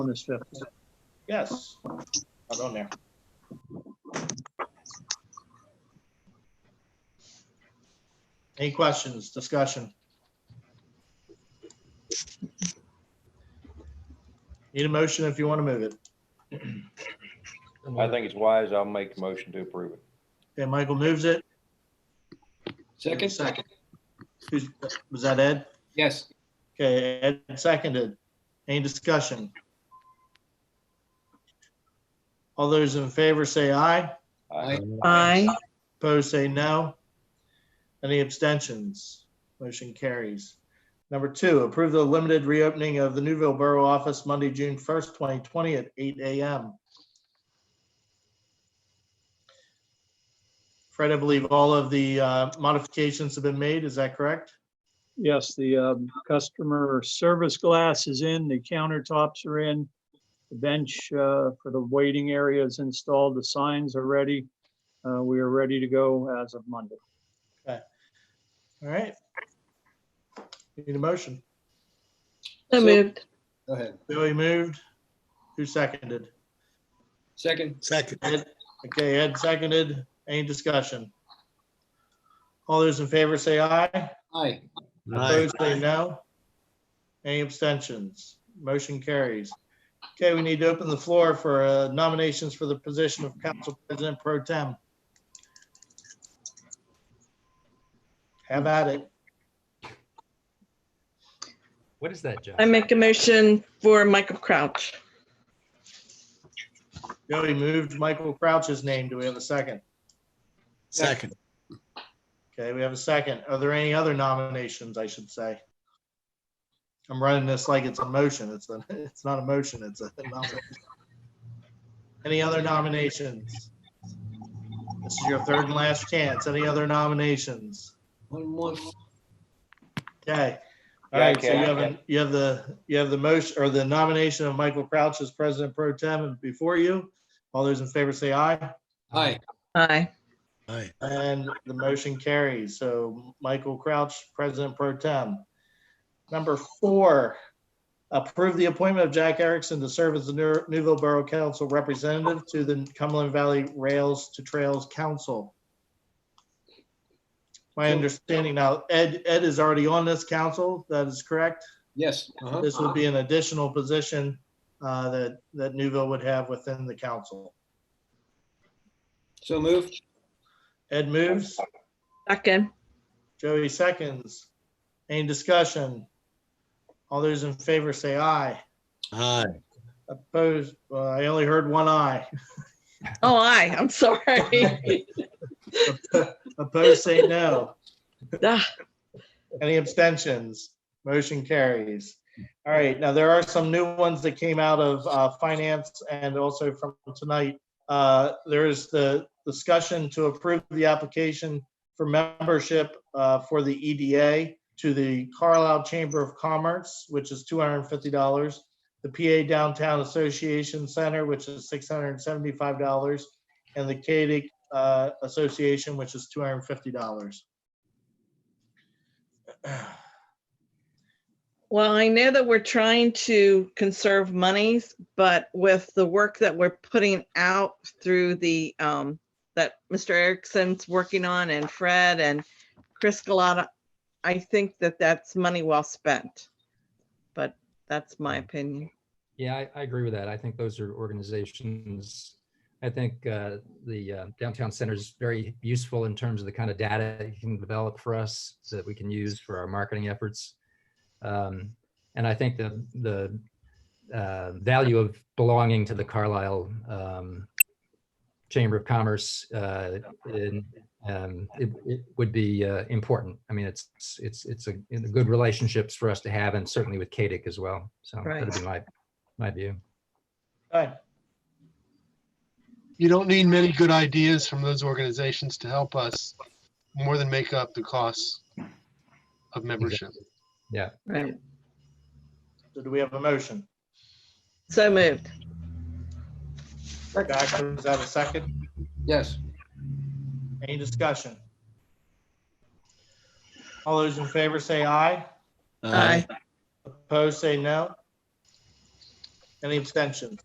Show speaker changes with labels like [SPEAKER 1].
[SPEAKER 1] on this fifth.
[SPEAKER 2] Yes, I'll go in there. Any questions, discussion? Need a motion if you want to move it.
[SPEAKER 3] I think it's wise. I'll make the motion to approve it.
[SPEAKER 2] Okay, Michael moves it.
[SPEAKER 4] Second?
[SPEAKER 2] Second. Who's, was that Ed?
[SPEAKER 4] Yes.
[SPEAKER 2] Okay, Ed seconded. Any discussion? All those in favor say aye.
[SPEAKER 3] Aye.
[SPEAKER 5] Aye.
[SPEAKER 2] Opposed, say no. Any abstentions? Motion carries. Number two, approve the limited reopening of the Newville Borough Office Monday, June 1st, 2020 at 8 a.m. Fred, I believe all of the uh, modifications have been made. Is that correct?
[SPEAKER 1] Yes, the um, customer service glass is in, the countertops are in, the bench uh, for the waiting area is installed, the signs are ready. Uh, We are ready to go as of Monday.
[SPEAKER 2] All right. Need a motion?
[SPEAKER 5] So moved.
[SPEAKER 4] Go ahead.
[SPEAKER 2] Billy moved. Who seconded?
[SPEAKER 4] Second?
[SPEAKER 6] Second.
[SPEAKER 2] Okay, Ed seconded. Any discussion? All those in favor say aye.
[SPEAKER 4] Aye.
[SPEAKER 2] Opposed, say no. Any abstentions? Motion carries. Okay, we need to open the floor for uh, nominations for the position of Council President Pro Tem. Have at it.
[SPEAKER 7] What is that, John?
[SPEAKER 5] I make a motion for Michael Crouch.
[SPEAKER 2] Joey moved Michael Crouch's name. Do we have a second?
[SPEAKER 6] Second.
[SPEAKER 2] Okay, we have a second. Are there any other nominations, I should say? I'm running this like it's a motion. It's a, it's not a motion, it's a nomination. Any other nominations? This is your third and last chance. Any other nominations?
[SPEAKER 4] One more.
[SPEAKER 2] Okay.
[SPEAKER 3] Yeah,
[SPEAKER 2] All right, so
[SPEAKER 3] okay,
[SPEAKER 2] you have,
[SPEAKER 3] okay.
[SPEAKER 2] an- you have the, you have the motion or the nomination of Michael Crouch as president pro tem before you. All those in favor say aye.
[SPEAKER 4] Aye.
[SPEAKER 5] Aye.
[SPEAKER 6] Aye.
[SPEAKER 2] And the motion carries. So Michael Crouch, President Pro Tem. Number four, approve the appointment of Jack Erickson to serve as the New- Newville Borough Council Representative to the Cumberland Valley Rails to Trails Council. My understanding now, Ed, Ed is already on this council. That is correct.
[SPEAKER 4] Yes. Uh-huh.
[SPEAKER 2] This would be an additional position uh, that, that Newville would have within the council.
[SPEAKER 4] So moved.
[SPEAKER 2] Ed moves.
[SPEAKER 5] Second.
[SPEAKER 2] Joey seconds. Any discussion? All those in favor say aye.
[SPEAKER 6] Aye.
[SPEAKER 2] Opposed, well, I only heard one aye.
[SPEAKER 5] Oh, aye. I'm sorry.
[SPEAKER 2] Opposed, say no.
[SPEAKER 5] Ah,
[SPEAKER 2] Any abstentions? Motion carries. All right, now there are some new ones that came out of uh, finance and also from tonight. Uh, There is the discussion to approve the application for membership uh, for the EDA to the Carlisle Chamber of Commerce, which is $250. The PA Downtown Association Center, which is $675. And the Kadick, uh Association, which is $250.
[SPEAKER 5] Well, I know that we're trying to conserve monies, but with the work that we're putting out through the, um, that Mr. Erickson's working on and Fred and Chris Galata, I think that that's money well spent. But that's my opinion.
[SPEAKER 7] Yeah, I, I agree with that. I think those are organizations. I think uh, the uh, downtown center is very useful in terms of the kind of data it can develop for us so that we can use for our marketing efforts. Um, and I think the the uh, value of belonging to the Carlisle um, Chamber of Commerce uh, in, um, it, it would be uh, important. I mean, it's it's it's a, it's a good relationships for us to have, and certainly with KDIC as well. So that'd be my my view.
[SPEAKER 2] Right.
[SPEAKER 8] you don't need many good ideas from those organizations to help us more than make up the costs of membership.
[SPEAKER 5] Right.
[SPEAKER 2] So do we have a motion?
[SPEAKER 5] So moved.
[SPEAKER 2] Doctor, is that a second?
[SPEAKER 4] Yes.
[SPEAKER 2] Any discussion? All those in favor say aye.
[SPEAKER 5] Aye.
[SPEAKER 2] Opposed, say no. Any abstentions?